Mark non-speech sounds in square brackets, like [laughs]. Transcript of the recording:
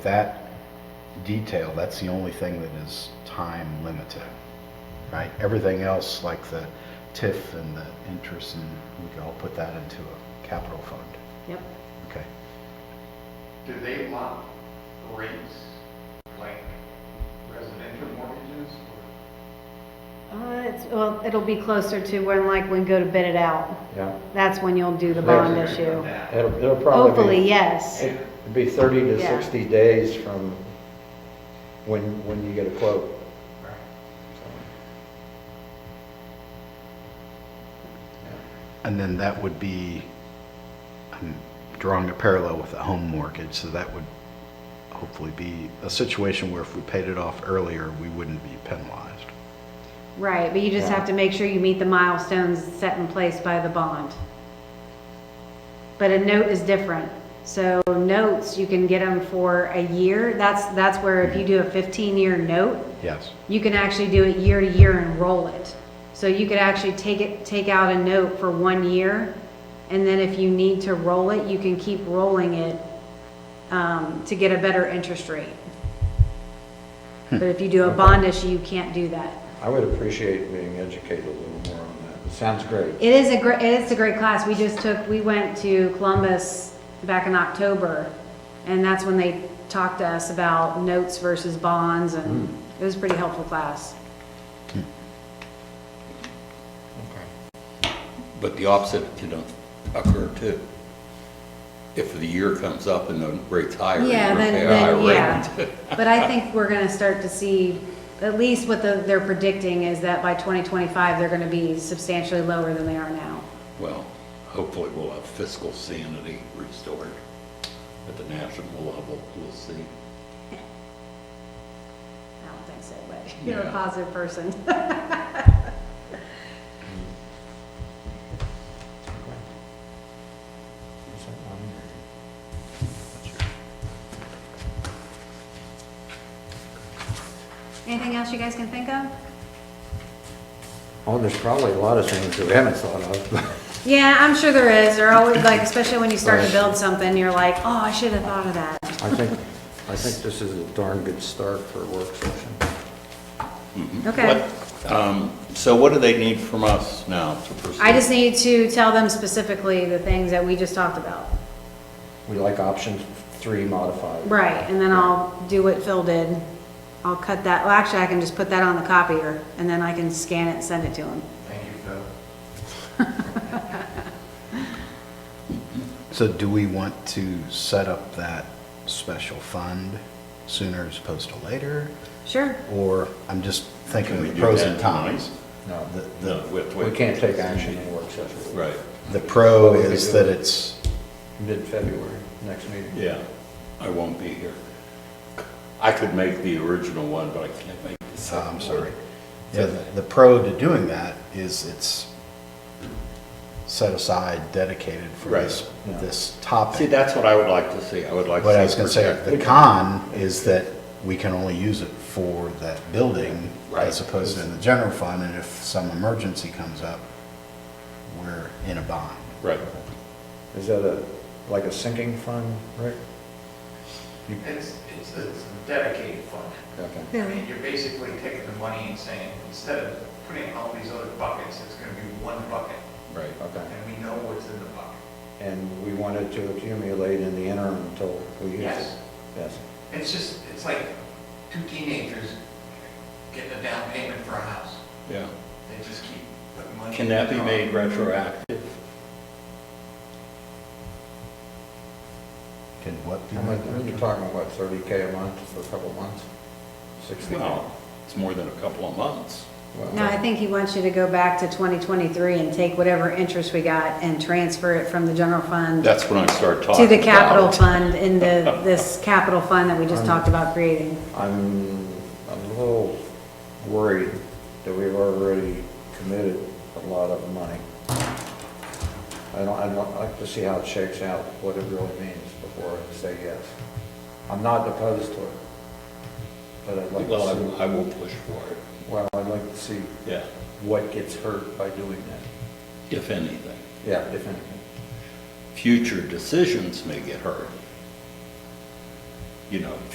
that detail, that's the only thing that is time limited, right? Everything else, like the TIF and the interest, and we can all put that into a capital fund, Yep. okay? Do they want rates like residential mortgages? or- Uh, it's, well, it'll be closer to when like we go to bid it out. Yeah, That's when you'll do the bond Rates are issue. gonna come down. it'll, it'll probably Hopefully, be, yes. it'd be thirty to Yeah. sixty days from when, when you get a quote. Right. And then that would be, I'm drawing a parallel with a home mortgage, so that would hopefully be a situation where if we paid it off earlier, we wouldn't be penalized. Right, but you just Yeah. have to make sure you meet the milestones set in place by the bond. But a note is different. So notes, you can get them for a year. That's, that's where if you do a 15-year note, Yes. you can actually do it year to year and roll it. So you could actually take it, take out a note for one year, and then if you need to roll it, you can keep rolling it um, to get a better interest rate. But if you do a bond issue, you can't do that. I would appreciate being educated a little more on that. It sounds great. It is a great, it's a great class. We just took, we went to Columbus back in October, and that's when they talked to us about notes versus bonds, and it was a pretty helpful class. But the opposite can occur too. If the year comes up and the rate's higher. you're Yeah, gonna then, pay a then, higher yeah. rate. [laughs] But I think we're gonna start to see, at least what the, they're predicting is that by twenty twenty-five, they're gonna be substantially lower than they are now. Well, hopefully we'll have fiscal sanity restored at the national level, we'll see. I don't think so, but [laughs] you're a Yeah. positive [laughs] person. Anything else you guys can think of? Oh, there's probably a lot of things that we haven't thought of. Yeah, I'm sure there is. They're always, like, especially when you start to Right. build something, you're like, oh, I should have thought of that. I think, I think this is a darn good start for a work session. Okay. Mm-hmm. What- um, So what do they need from us now to proceed? I just need to tell them specifically the things that we just talked about. We like option three modified. Right, and then I'll do what Phil did. I'll cut that, well, actually, I can just put that on the copier, and then I can scan it and send it to him. Thank you, Phil. So do we want to set up that special fund sooner as opposed to later? Sure. Or, I'm just thinking Can we the do pros that and cons. No, The, No, the, wait, we wait. can't take action in a work session. Right, the pro What would we is do? that it's, Mid-February, next meeting. yeah, I won't be here. I could make the original one, but I can't make the uh, second I'm one. sorry. Yeah, the- the pro to doing that is it's set aside, dedicated for Right. this, Yeah. this See, topic. that's what I would like to see, I would like to see. But I was gonna say, protected. the con is that we can only use it for that building Right. as opposed to in the general fund, and if some emergency comes up, we're in a bind. Right. Is that a, like a sinking fund, Rick? It's, it's it's a dedicated fund. Okay. I mean, you're basically taking the money and saying, instead of putting all these other buckets, it's gonna be one bucket, Right. Okay. and we know what's in the bucket. And we wanted to accumulate in the interim until we use it. Yes. Yes. It's just, it's like two teenagers getting a down payment for a house. Yeah. They just keep putting money. Can in that the be car. made retroactive? Can what be? How much, you're talking about thirty K a month for a couple of months? Sixty? Well, it's more than a couple of months. Well, No, I think he wants you to go back to 2023 and take whatever interest we got and transfer it from the general fund That's when I start talking to the capital about it. fund in the, this capital fund that we just talked about creating. I'm, I'm a little worried that we've already committed a lot of money. I don't, I'd like to see how it shakes out, what it really means before I say yes. I'm not opposed to it, but I'd like Well, I to will- see, I will push for it, well, I'd like to see yeah, what gets hurt by doing that. if anything. Yeah, if anything. Future decisions may get hurt. You know,